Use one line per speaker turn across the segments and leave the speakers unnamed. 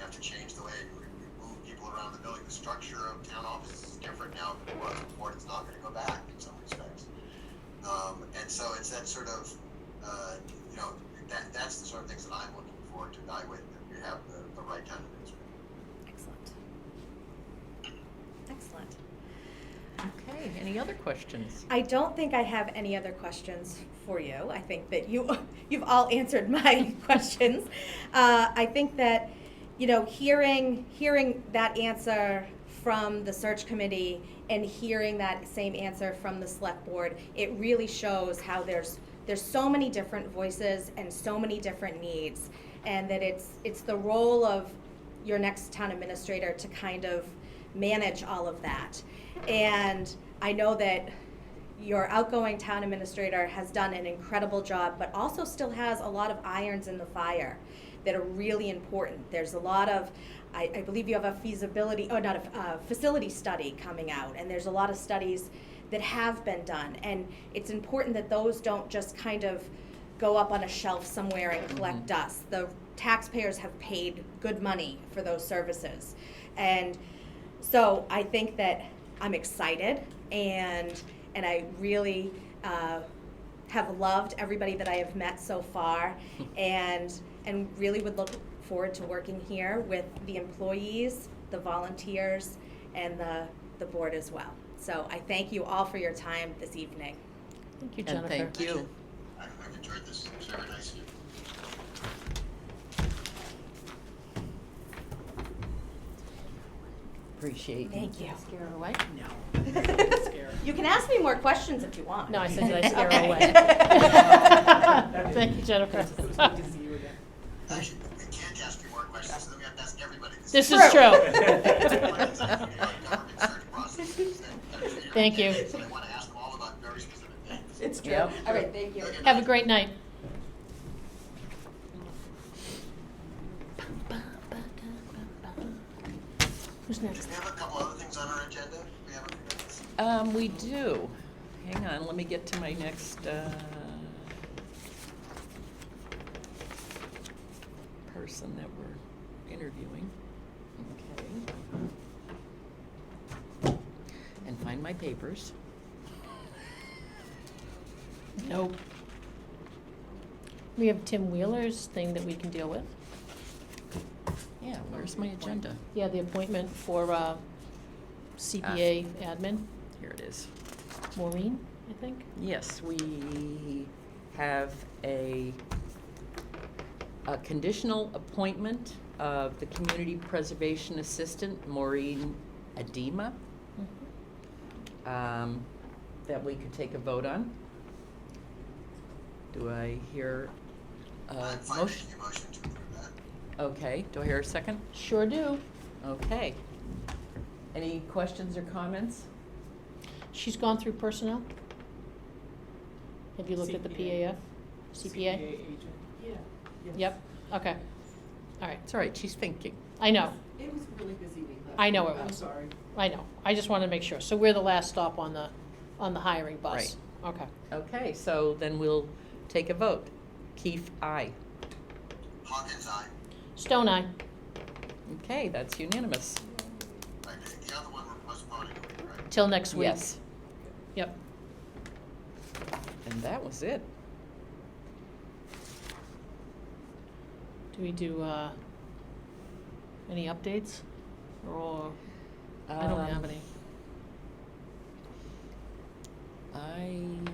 have to change the way we, we move people around the building. The structure of town offices is different now than it was before. It's not going to go back in some respects. Um, and so it's that sort of, uh, you know, that, that's the sort of things that I'm looking for to evaluate that we have the, the right kind of administrator.
Excellent. Excellent.
Okay, any other questions?
I don't think I have any other questions for you. I think that you you've all answered my questions. Uh, I think that you know hearing hearing that answer from the search committee and hearing that same answer from the select board, it really shows how there's there's so many different voices and so many different needs, and that it's it's the role of your next town administrator to kind of manage all of that. And I know that your outgoing town administrator has done an incredible job, but also still has a lot of irons in the fire that are really important. There's a lot of, I, I believe you have a feasibility, oh, not a uh, facility study coming out, and there's a lot of studies that have been done. And it's important that those don't just kind of go up on a shelf somewhere and collect dust. The taxpayers have paid good money for those services. And so I think that I'm excited and and I really uh, have loved everybody that I have met so far and and really would look forward to working here with the employees, the volunteers, and the, the board as well. So I thank you all for your time this evening.
Thank you,
And
Jennifer.
thank you.
I, I've enjoyed this. It's very nice of you.
Appreciate you.
Thank you.
Scare her away?
you can ask me more questions if you want.
No, I said, did I scare her
Okay.
away? Thank you, Jennifer.
Actually, we can't ask you more questions, so then we have to ask everybody.
This is
Government
true.
search processes that- that are here.
Thank you.
So I want to ask them all about very specific things.
It's true.
Yep.
All right, thank you.
Have a great night. Who's next?
Do we have a couple other things on our agenda? We have a
Um, we do. Hang on, let me get to my next, uh, person that we're interviewing. Okay. And find my papers. Nope.
We have Tim Wheeler's thing that we can deal with.
Yeah, where's my agenda?
Yeah, the appointment for uh, CPA admin,
Here it is.
Maureen, I think.
Yes, we have a, a conditional appointment of the Community Preservation Assistant, Maureen Adema,
Mm-hmm.
um, that we could take a vote on. Do I hear a
I'm fine
Uh, motion?
making a motion to approve that.
Okay, do I hear a second?
Sure do.
Okay. Any questions or comments?
She's gone through personnel? Have you looked at the PAF?
CPA.
CPA?
agent. Yeah.
Yep, okay. All right,
It's all right, she's thinking.
I know,
It was really busy week last
I know
week.
it
I'm
was.
sorry.
I know. I just wanted to make sure. So we're the last stop on the, on the hiring bus? Okay.
Okay, so then we'll take a vote. Keith, aye.
Hawkins, aye.
Stone Eye,
Okay, that's unanimous.
Right, the- the other one we're postponing, right?
till next week.
Yes,
Yep.
and that was it.
Do we do, uh, any updates? Or, I don't have
Um,
any.
I,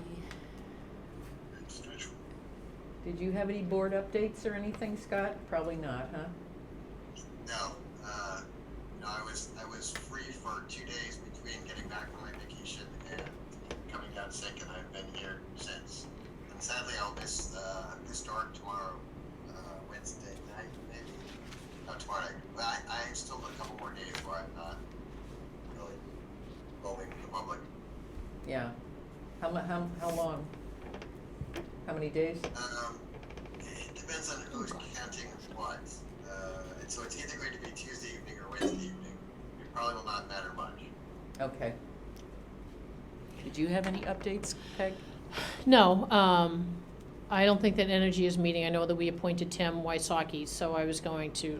It's neutral.
did you have any board updates or anything, Scott? Probably not, huh?
No, uh, no, I was, I was free for two days between getting back from my vacation and coming down sick, and I've been here since. And sadly, I'll miss, uh, this dark tomorrow, uh, Wednesday night, maybe, not tomorrow night. But I, I still have a couple more days where I'm not really going to the public.
Yeah. How mu- how, how long? How many days?
Um, it depends on who's counting what. Uh, and so it's either going to be Tuesday evening or Wednesday evening. It probably will not matter much.
Okay. Did you have any updates, Peg?
No, um, I don't think that Energy is meeting. I know that we appointed Tim Wysocki, so I was going to